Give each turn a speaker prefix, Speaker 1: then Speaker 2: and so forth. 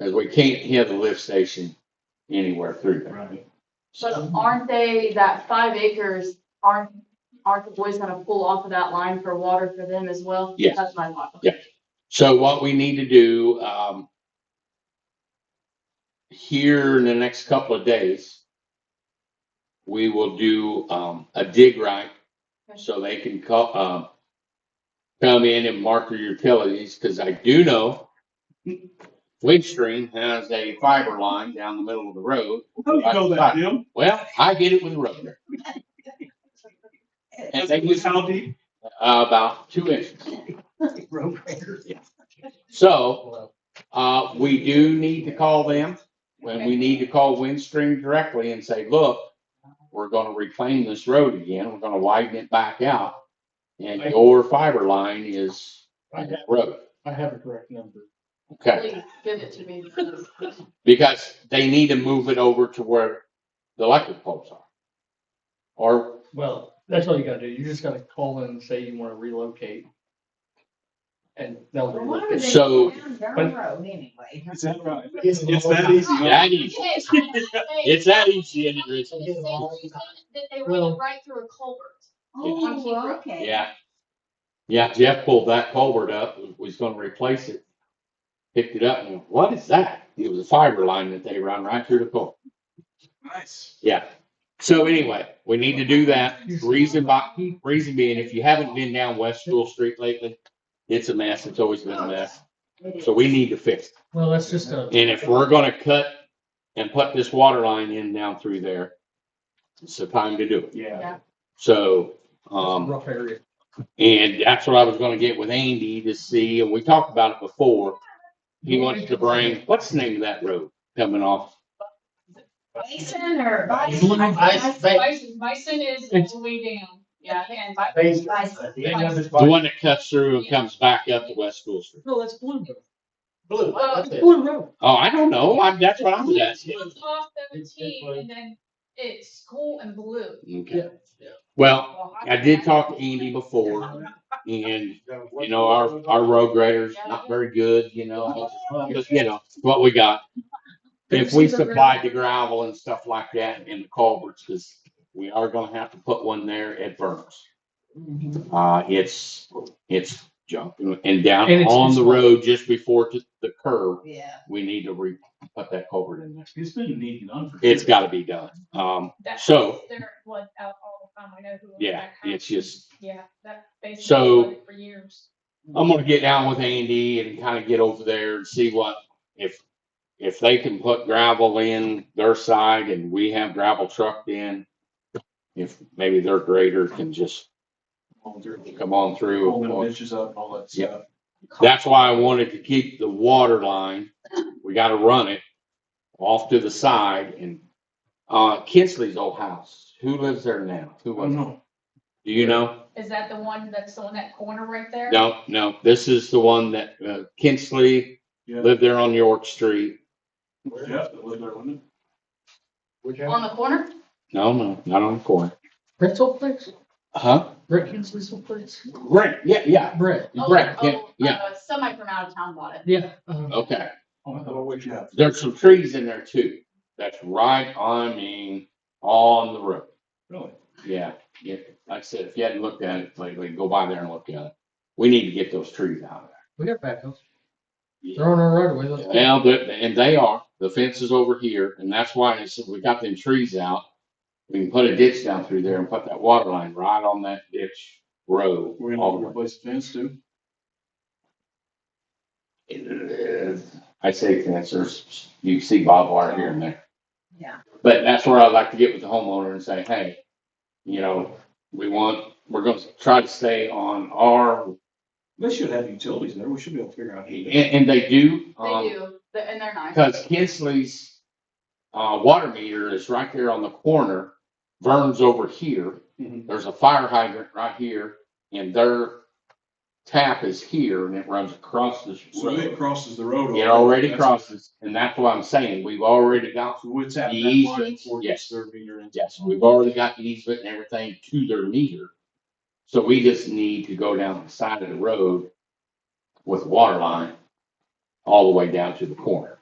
Speaker 1: Cause we can't hear the lift station anywhere through there.
Speaker 2: Right.
Speaker 3: But
Speaker 1: Mm-hmm.
Speaker 3: aren't they, that five acres, aren't, aren't the boys gonna pull off of that line for water for them as well?
Speaker 1: Yes.
Speaker 3: That's my thought.
Speaker 1: So what we need to do, um, here in the next couple of days, we will do, um, a dig right. So they can call, um, come in and mark their utilities, cause I do know Windstream has a fiber line down the middle of the road.
Speaker 2: How do you know that, Jim?
Speaker 1: Well, I get it with a rotor, And they use-
Speaker 2: How deep?
Speaker 1: Uh, about two inches. So, Uh, we do need to call them, and we need to call Windstream directly and say, look, we're gonna reclaim this road again, we're gonna widen it back out. And your fiber line is
Speaker 4: I have,
Speaker 1: road,
Speaker 4: I have a correct number.
Speaker 3: Please
Speaker 1: okay?
Speaker 3: give it to me.
Speaker 1: Because they need to move it over to where the electric poles are. Or,
Speaker 4: Well, that's all you gotta do. You just gotta call in and say you wanna relocate. And they'll
Speaker 5: Well, why
Speaker 4: relocate.
Speaker 5: would they
Speaker 1: So-
Speaker 5: go down their
Speaker 4: but-
Speaker 5: road anyway?
Speaker 2: Is that right? It's, it's that easy. huh?
Speaker 1: that easy, it's that easy, and it's,
Speaker 3: The same reason That they ran
Speaker 4: Well-
Speaker 3: it right through a culvert.
Speaker 5: Oh, well, okay.
Speaker 1: yeah. Yeah, Jeff pulled that culvert up, was gonna replace it, picked it up, and went, what is that? It was a fiber line that they run right through the culvert.
Speaker 2: Nice.
Speaker 1: Yeah. So anyway, we need to do that. Reason by, reason being, if you haven't been down West School Street lately, it's a mess. It's always been a mess. So we need to fix. it.
Speaker 4: Well, that's just a.
Speaker 1: And if we're gonna cut and put this water line in down through there, it's the time to do it.
Speaker 2: Yeah.
Speaker 1: So, um,
Speaker 4: Rough area.
Speaker 1: and that's what I was gonna get with Andy to see, and we talked about it before. He wants to bring, what's the name of that road coming off?
Speaker 5: Bison or
Speaker 4: Blue ice
Speaker 5: bison?
Speaker 4: ba-
Speaker 6: Bison, bison is all
Speaker 4: It's-
Speaker 6: the way down, yeah, and.
Speaker 5: Bison.
Speaker 1: The one that cuts through and comes back up to West School Street.
Speaker 4: No, that's Blue Road.
Speaker 6: Blue, that's it.
Speaker 4: Blue Road.
Speaker 1: Oh, I don't know. I, that's what I'm asking.
Speaker 6: It's off seventeen,
Speaker 4: It's-
Speaker 6: and then it's cool and blue.
Speaker 1: Okay. Well, I did talk to Andy before and, you know, our, our road grader's not very good, you know, just, you know, what we got. If we supplied the gravel and stuff like that and the culverts, cause we are gonna have to put one there at Burns. Uh, it's, it's junk and down
Speaker 4: And it's-
Speaker 1: on the
Speaker 4: it's-
Speaker 1: road just before to the curb,
Speaker 5: Yeah.
Speaker 1: we need to re, put that culvert in there.
Speaker 2: It's been needing on for.
Speaker 1: It's gotta be done. Um,
Speaker 6: That-
Speaker 1: so-
Speaker 6: There was out all the time, I know who. owned
Speaker 1: yeah,
Speaker 6: that house.
Speaker 1: it's just,
Speaker 6: Yeah, that
Speaker 1: So-
Speaker 6: basically for years.
Speaker 1: I'm gonna get down with Andy and kind of get over there and see what, if, if they can put gravel in their side and we have gravel trucked in. If maybe their grader can just come on
Speaker 2: All the
Speaker 1: through.
Speaker 2: bitches up, all that
Speaker 1: Yeah.
Speaker 2: stuff.
Speaker 1: That's why I wanted to keep the water line. We gotta run it off to the side and, uh, Kinsley's old house. Who lives there now? Who
Speaker 2: Oh,
Speaker 1: was,
Speaker 2: no.
Speaker 1: do you know?
Speaker 6: Is that the one that's on that corner right there?
Speaker 1: No, no, this is the one that, uh, Kinsley
Speaker 2: Yeah.
Speaker 1: lived there on York Street.
Speaker 2: Yeah, it was there, wasn't
Speaker 3: On the corner?
Speaker 1: No, no, not on the corner.
Speaker 4: Brett's old place?
Speaker 1: Huh?
Speaker 4: Brett Kinsley's old place?
Speaker 1: Right. Yeah, yeah.
Speaker 4: Brett.
Speaker 3: Oh,
Speaker 1: Right, yeah,
Speaker 3: oh,
Speaker 1: yeah.
Speaker 3: uh, Somebody from out of town bought it.
Speaker 4: Yeah. um,
Speaker 1: Okay.
Speaker 2: it? Oh, what you have?
Speaker 1: There's some trees in there too. That's right on, I mean, on the road.
Speaker 2: Really?
Speaker 1: Yeah, yeah. Like I said, if you hadn't looked at it lately, go by there and look at it. We need to get those trees out of
Speaker 4: We got backhoes.
Speaker 1: there.
Speaker 4: They're on our right away. Let's go.
Speaker 1: Now, that- and they are, the fence is over here and that's why I said we got them trees out. We can put a ditch down through there and put that water line right on that ditch road.
Speaker 2: We're
Speaker 1: all the
Speaker 2: gonna
Speaker 1: way.
Speaker 2: replace the fence too?
Speaker 1: I say fence, there's, you see barbed wire here and there.
Speaker 5: Yeah.
Speaker 1: But that's where I'd like to get with the homeowner and say, hey, you know, we want, we're gonna try to stay on our,
Speaker 2: They should have utilities there. We should be able to figure out. how to
Speaker 1: and,
Speaker 2: do that.
Speaker 1: and they do. um,
Speaker 3: They do, but- and they're nice.
Speaker 1: Cause Kinsley's, uh, water meter is right there on the corner, Vern's over here,
Speaker 2: Mhm.
Speaker 1: there's a fire hydrant right here, and their tap is here, and it runs across this
Speaker 2: So it
Speaker 1: road.
Speaker 2: crosses the road.
Speaker 1: It already
Speaker 2: That's-
Speaker 1: crosses, and that's what I'm saying, we've already got
Speaker 2: So it's at that
Speaker 1: Easy.
Speaker 2: line for
Speaker 1: Yes.
Speaker 2: serving your.
Speaker 1: Yes, we've already got the easement and everything to their meter. So we just need to go down the side of the road with water line all the way down to the corner.